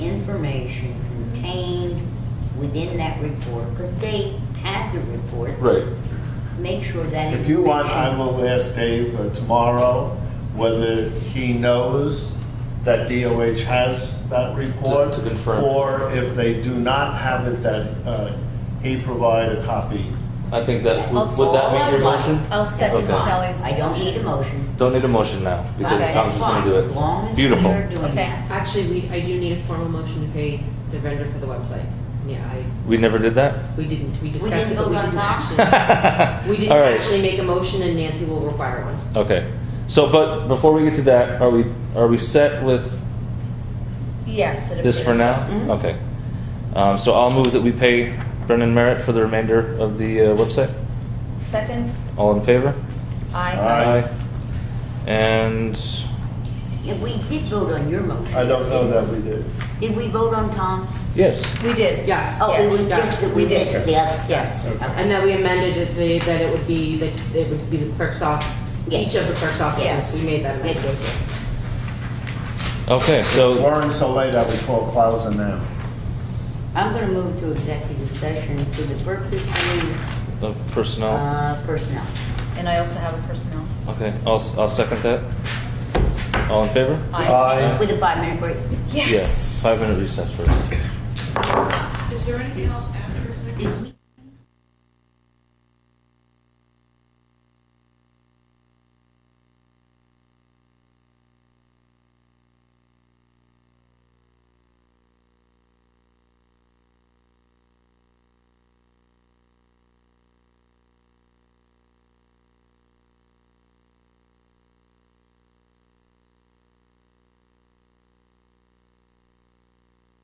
information contained within that report, because they had the report. Right. Make sure that. If you want, I information- will ask Dave uh, tomorrow whether he knows that DOH has that report. To- to confirm. Or if they do not have it, that uh, he provide a copy. I think that, would I'll would that make your second motion? that. I'll Oh, second Okay. Sally's. I don't need a motion. Don't need a motion now, because Okay. Tom's That's just gonna fine, do as it. long as we're Beautiful. doing Okay. that. Actually, we, I do need a formal motion to pay the vendor for the website. Yeah, I, We never did that? we didn't, we discussed didn't it, but vote we on didn't that. actually. We didn't All right. actually make a motion and Nancy will require one. Okay. So, but before we get to that, are we, are we set with Yes. it this for appears. now? Mm-hmm. Mhm. Okay. Um, so I'll move that we pay Brendan Merritt for the remainder of the uh, website. Second, All in favor? I. Aye. And If we did vote on your motion. I don't know that we did. Did we vote on Tom's? yes, We did. Yes. Oh, it Yes. was just that we We did. missed the other. Yes. And Okay. then we amended it, the- that it would be, that it would be the clerk's off, Yes. each of the clerk's Yes. offices, we made that Yes, amendment. yes, yes. okay, so, Warren's so late, I would call Clausen now. I'm gonna move to executive session for the purposes the uh, Uh. personnel, of personnel. And I also have a personnel. okay, I'll, I'll second that. All in favor? Aye. With a five-minute break. Yeah, Yes. Five minute recess first. Is there anything else after executive? session?